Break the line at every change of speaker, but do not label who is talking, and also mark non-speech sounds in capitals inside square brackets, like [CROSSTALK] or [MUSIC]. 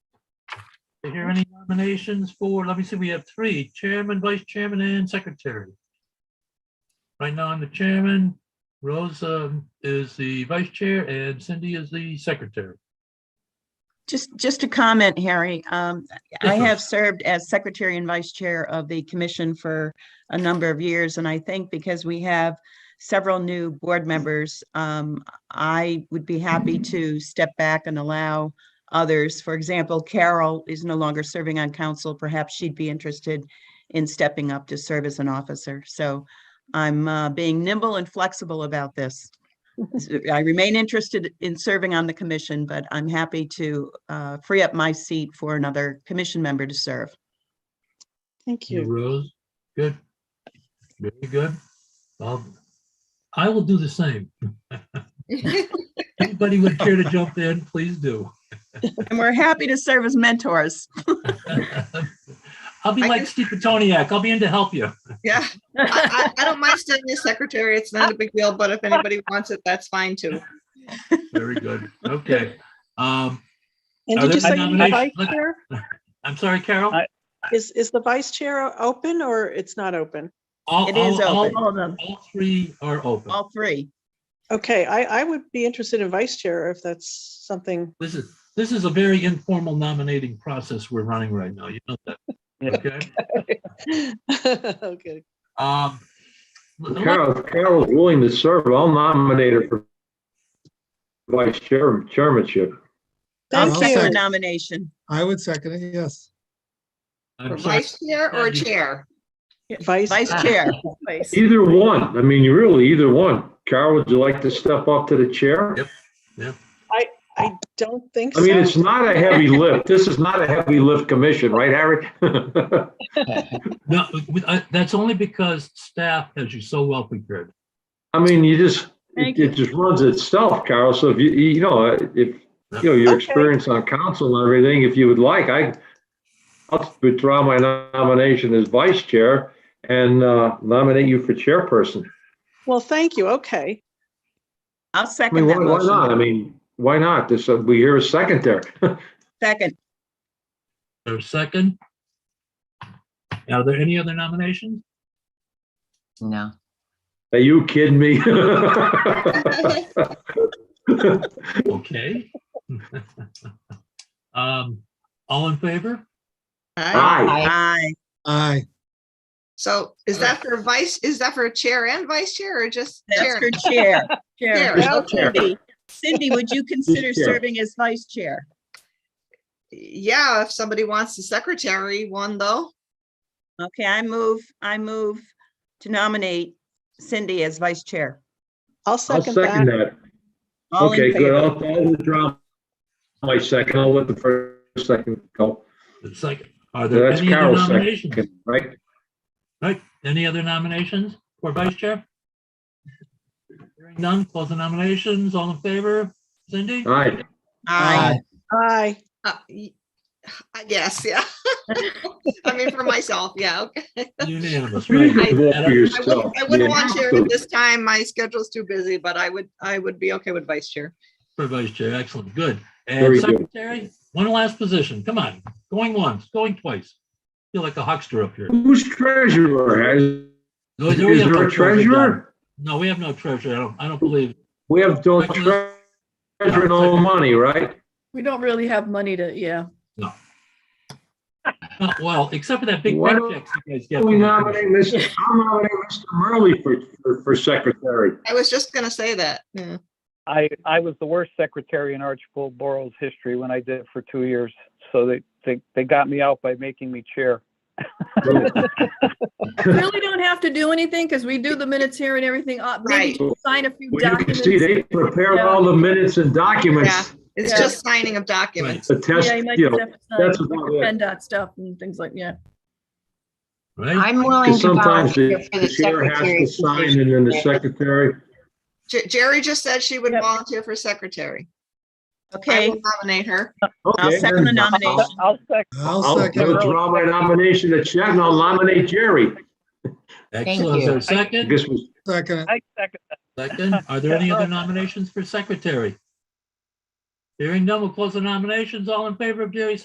we hear any nominations for, let me see, we have three, chairman, vice chairman, and secretary. Right now, I'm the chairman, Rose um, is the vice chair, and Cindy is the secretary.
Just, just a comment, Harry. Um,
Yes,
I
ma'am.
have served as secretary and vice chair of the commission for a number of years, and I think because we have several new board members, um, I would be happy to step back and allow others. For example, Carol is no longer serving on council. Perhaps she'd be interested in stepping up to serve as an officer. So I'm, uh, being nimble and flexible about this. I remain interested in serving on the commission, but I'm happy to uh, free up my seat for another commission member to serve.
Thank
You,
you.
Rose, good. Very good. Well, I will do the same.
[LAUGHS]
Anybody would care to jump in, please do.
And we're happy to serve as mentors.
I'll be
I
like
can-
Steve Petoniak, I'll be in to help you.
Yeah, I, I I don't mind staying as secretary. It's not a big deal, but if anybody wants it, that's fine too.
Very good, okay. Um,
And
Are
did
there
you say you need a vice
nominations? Look-
chair?
I'm sorry, Carol?
I-
Is, is the vice chair open or it's not open?
All-
It is
all- all-
open. All of them.
All three are open.
All three.
Okay, I, I would be interested in vice chair if that's something. [LAUGHS]
This is, this is a very informal nominating process we're running right now, you know that,
Yeah.
okay?
Okay.
Um, l- let-
Carol, if Carol's willing to serve. I'll nominate her for vice chair, chairmanship.
I'll
Thank
second the
you.
nomination.
I would second it, yes.
I'm
For
sorry.
vice chair or chair? [LAUGHS]
Vice,
Vice Chair.
Either one. I mean, you really, either one. Carol, would you like to step up to the chair?
Yep.
I don't think
I
so.
mean, it's not a heavy lift. This is not a heavy lift commission, right, Harry? [LAUGHS]
No, we- I- that's only because staff has you so well prepared.
I mean, you just,
Thank
it
you.
it just runs itself, Carol. So if you, you know, if, you know, your
Okay.
experience on council and everything, if you would like, I, I'll withdraw my nomination as vice chair and uh, nominate you for chairperson.
Well, thank you. Okay.
I'll
I mean,
second
why,
that
why not? I
motion.
mean, why not? This, uh, we hear a second there. [LAUGHS]
Second.
Or second? Are there any other nominations?
No.
Are you kidding me?
[LAUGHS]
[LAUGHS]
Okay. [LAUGHS] Um, all in favor?
Aye.
Aye.
Aye.
Aye.
So is that for vice, is that for chair and vice chair or just
That's
chair?
for
[LAUGHS]
Chair. Chair.
Chair.
Okay.
Cindy, Cindy, would you consider
Chair.
serving as Vice Chair?
Yeah, if somebody wants the secretary one though.
Okay, I move, I move to nominate Cindy as Vice Chair.
I'll
I'll
second
second
that.
that.
All in
Okay, good.
favor?
I'll, I'll withdraw my second. I'll let the first second go.
The Second, are there
That's
any other
Carol's
nominations?
second, right?
Right, any other nominations for vice chair? Hearing none, close the nominations, all in favor, Cindy?
Aye.
Aye.
Aye.
Uh, y- I guess, yeah. [LAUGHS] I mean, for myself, yeah, okay.
Unanimous,
You
right?
can vote for
I
yourself.
wouldn't, I wouldn't
Yeah.
want chair at this time. My schedule's too busy, but I would, I would be okay with vice chair.
For vice chair, excellent, good. And
Very good.
secretary, one last position, come on, going once, going twice. Feel like a huckster up here.
Who's treasurer? Is
No,
is
no, we have
there
no
a treasurer?
No, we have no treasurer, I don't, I don't believe.
We have, don't treasure no money, right?
We don't really have money to, yeah.
Uh, Well, except for that big
Why don't-
paycheck you guys get.
We
from the
nominate
commission.
Mr., I'll nominate Mr. Murley for, for, for secretary.
I was just gonna say that, yeah.
I, I was the worst secretary in Archibald Borough's history when I did it for two years. So they, they, they got me out by making me chair.
Really don't have to do anything because we do the minutes here and everything. Uh, Maybe
Right.
just sign a few
Well, you can
documents.
see they prepared all the minutes and documents,
It's
Yeah.
just signing of documents.
the test,
Yeah, you might
you
just
know,
have uh, to
that's
sign
about it.
PennDOT stuff and things like, yeah.
Right,
I'm willing
Because
to
sometimes
volunteer
the
for
the
the
chair has to
secretary.
sign and then the secretary.
Jer- Jerry just said she would
Yep.
volunteer for secretary. I
Okay,
will nominate her.
I'll
Okay,
second the
then
nomination.
I'll second.
I'll
I'll
second it.
withdraw my nomination to Chet and I'll nominate Jerry.
excellent, is
you.
there a second?
This was,
Second it.
I second that.
Second, are there any other nominations for secretary? Hearing none, we'll close the nominations, all in favor of Jerry